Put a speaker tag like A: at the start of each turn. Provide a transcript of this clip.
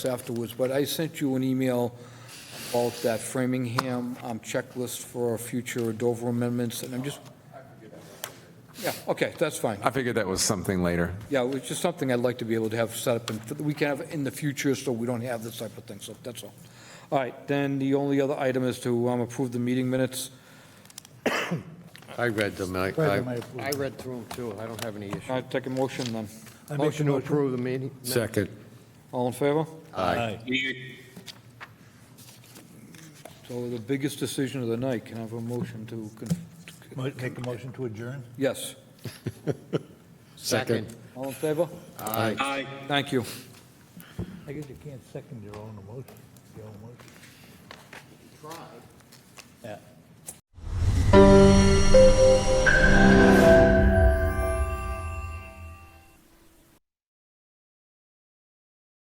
A: afterwards, but I sent you an email about that Framingham um, checklist for future Dover amendments, and I'm just... Yeah, okay, that's fine.
B: I figured that was something later.
A: Yeah, it's just something I'd like to be able to have set up, and we can have in the future, so we don't have this type of thing, so that's all. All right, then the only other item is to um, approve the meeting minutes.
C: I read them. I,
D: Read them, I
C: I
D: approve.
C: I read through them too. I don't have any issue.
A: All right, take a motion then.
D: I make a
C: Motion to
D: motion.
C: approve the meeting?
B: Second.
A: All in favor?
C: Aye.
A: So the biggest decision of the night, can I have a motion to, con-
D: Mo- Make a motion to adjourn?
A: yes,
C: Second.
A: all in favor?
C: Aye.
A: Thank you.
D: I guess you can't second your own emotion, your own motion. Try. Yeah.